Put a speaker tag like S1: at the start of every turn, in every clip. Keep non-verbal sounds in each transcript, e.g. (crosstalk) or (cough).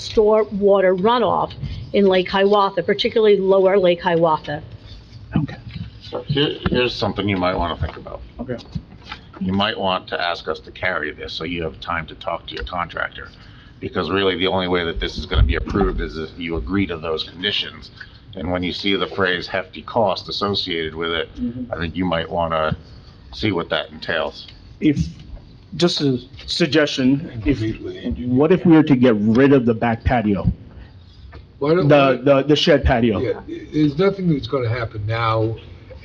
S1: store water runoff in Lake Hiawatha, particularly lower Lake Hiawatha.
S2: Okay.
S3: So here, here's something you might want to think about.
S2: Okay.
S3: You might want to ask us to carry this, so you have time to talk to your contractor. Because really, the only way that this is going to be approved is if you agree to those conditions. And when you see the phrase hefty cost associated with it,
S4: Mm-hmm.
S3: I think you might want to see what that entails.
S2: If, just a suggestion, if, what if we were to get rid of the back patio?
S5: Why don't,
S2: The,
S5: we-
S2: the, the shed
S5: yeah,
S2: patio?
S5: there's nothing that's gonna happen now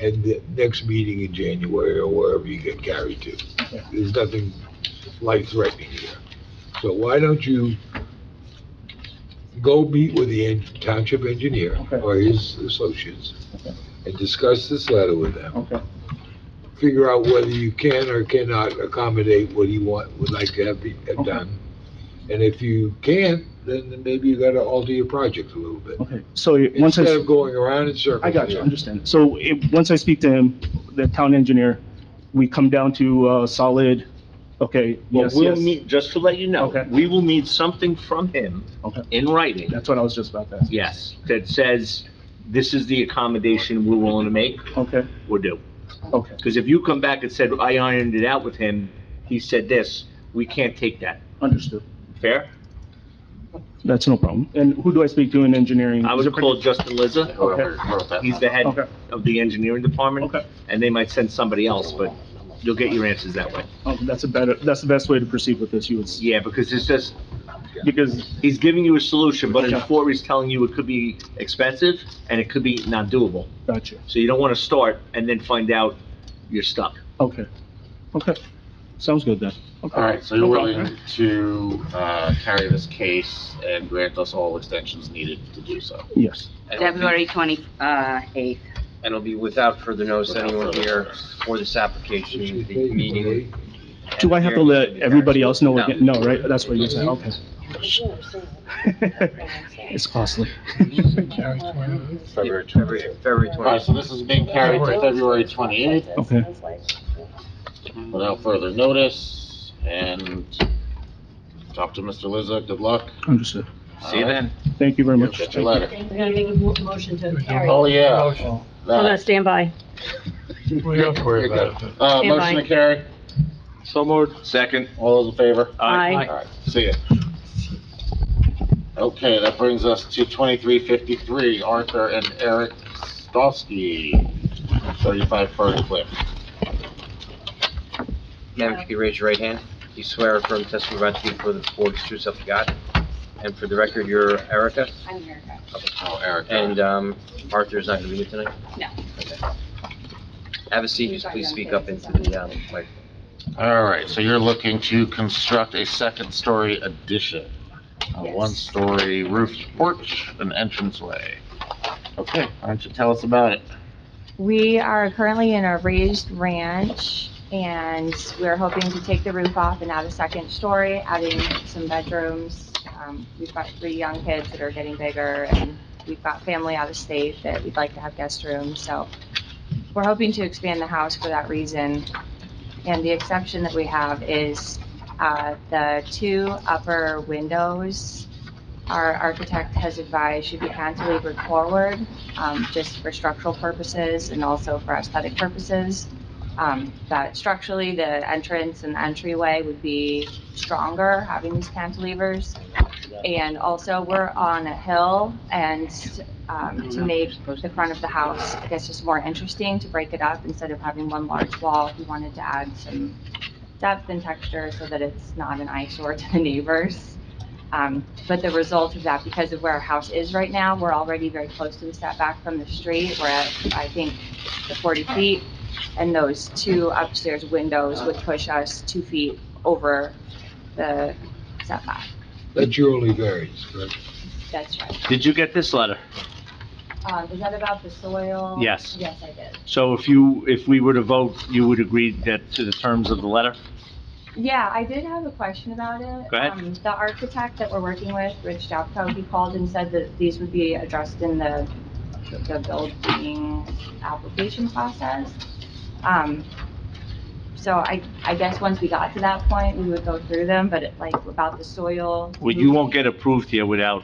S5: and the next meeting in January or wherever you get carried to. There's nothing life-threatening here. So why don't you go meet with the en- township engineer
S2: Okay.
S5: or his associates
S2: Okay.
S5: and discuss this letter with them.
S2: Okay.
S5: Figure out whether you can or cannot accommodate what he want, would like to have be, have
S2: Okay.
S5: done. And if you can't, then maybe you gotta alter your project a little bit.
S2: Okay. So it- once I,
S5: Instead of going around in circles.
S2: I got you,
S5: yeah.
S2: understand. So it, once I speak to him, the town engineer, we come down to, uh, solid, okay,
S6: Well,
S2: yes,
S6: we'll
S2: yes.
S6: need, just to let you know,
S2: Okay.
S6: we will need something from him
S2: Okay.
S6: in writing,
S2: That's what I was just about to ask.
S6: yes, that says, this is the accommodation we're willing to make
S2: Okay,
S6: or do.
S2: okay,
S6: Because if you come back and said, I ironed it out with him, he said this, we can't take that.
S2: understood.
S6: Fair?
S2: That's no problem. And who do I speak to in engineering?
S6: I
S2: Is
S6: would
S2: it-
S6: call Justin Lizza.
S3: Whoever wrote that.
S6: He's the head
S2: Okay.
S6: of the engineering department.
S2: Okay.
S6: And they might send somebody else, but you'll get your answers that way.
S2: Oh, that's a better, that's the best way to proceed with this, you would, s-
S6: Yeah, because it's just,
S2: because,
S6: he's giving you a solution, but in
S2: Okay.
S6: four, he's telling you it could be expensive and it could be not doable.
S2: gotcha.
S6: So you don't want to start and then find out you're stuck.
S2: Okay, okay. Sounds good then. Okay.
S3: All right, so you're
S2: Okay.
S3: willing to, uh, carry this case and grant us all extensions needed to do so?
S2: Yes,
S7: February 28th.
S4: And it'll be without further notice to anyone here for this application, the meeting.
S2: do I have to let everybody else know again? No, right, that's what you're saying, okay. (laughs) It's costly. (laughs)
S3: February
S4: February,
S3: 28th.
S4: February
S3: All right,
S4: 20th.
S3: so this is being carried to February 28th.
S2: Okay.
S3: without further notice, and talk to Mr. Lizza, good luck.
S2: Understood.
S4: See you then.
S2: Thank you very much.
S3: Get your letter.
S1: We're gonna make a mo- motion to carry.
S3: Oh, yeah.
S1: We're gonna
S3: That.
S1: stand by.
S5: We don't worry about it.
S3: Uh,
S1: Stand
S3: motion
S1: by.
S3: to carry,
S4: So moved. Second.
S3: all those in favor?
S1: Aye.
S3: All right, see ya. Okay, that brings us to 2353, Arthur and Eric Stosky, 35 Fern Cliff.
S4: Madam, if you could raise your right hand. Do you swear or affirm testimony you're about to give before the board is true self you got? And for the record, you're Erica,
S7: I'm here.
S3: Oh, Eric.
S4: and um, Arthur is not going to be here tonight?
S7: No.
S4: Okay. Have a seat, just please speak up into the um, mic.
S3: All right, so you're looking to construct a second-story addition, a
S7: Yes.
S3: one-story roof porch, an entranceway. Okay, why don't you tell us about it?
S8: We are currently in a raised ranch, and we're hoping to take the roof off and add a second story, adding some bedrooms. Um, We've got three young kids that are getting bigger, and we've got family out of state that we'd like to have guest rooms, so we're hoping to expand the house for that reason. And the exception that we have is uh, the two upper windows, our architect has advised should be cantilevered forward, um, just for structural purposes and also for aesthetic purposes. Um, that structurally, the entrance and entryway would be stronger having these cantilevers. And also, we're on a hill and, um, to make the front of the house, I guess, just more interesting to break it up instead of having one large wall. We wanted to add some depth and texture so that it's not an eyesore to the neighbors. Um, But the result of that, because of where our house is right now, we're already very close to the setback from the street. We're at, I think, the 40 feet. And those two upstairs windows would push us two feet over the setback.
S5: That's your only variance, correct?
S8: That's right.
S6: Did you get this letter?
S8: Um, Is that about the soil?
S6: Yes.
S8: Yes, I did.
S6: So if you, if we were to vote, you would agree that to the terms of the letter?
S8: Yeah, I did have a question about it.
S6: Go ahead.
S8: Um, The architect that we're working with, Rich Japko, he called and said that these would be addressed in the, the building application process. Um, So I, I guess once we got to that point, we would go through them, but it, like about the soil.
S6: Well, you won't get approved here without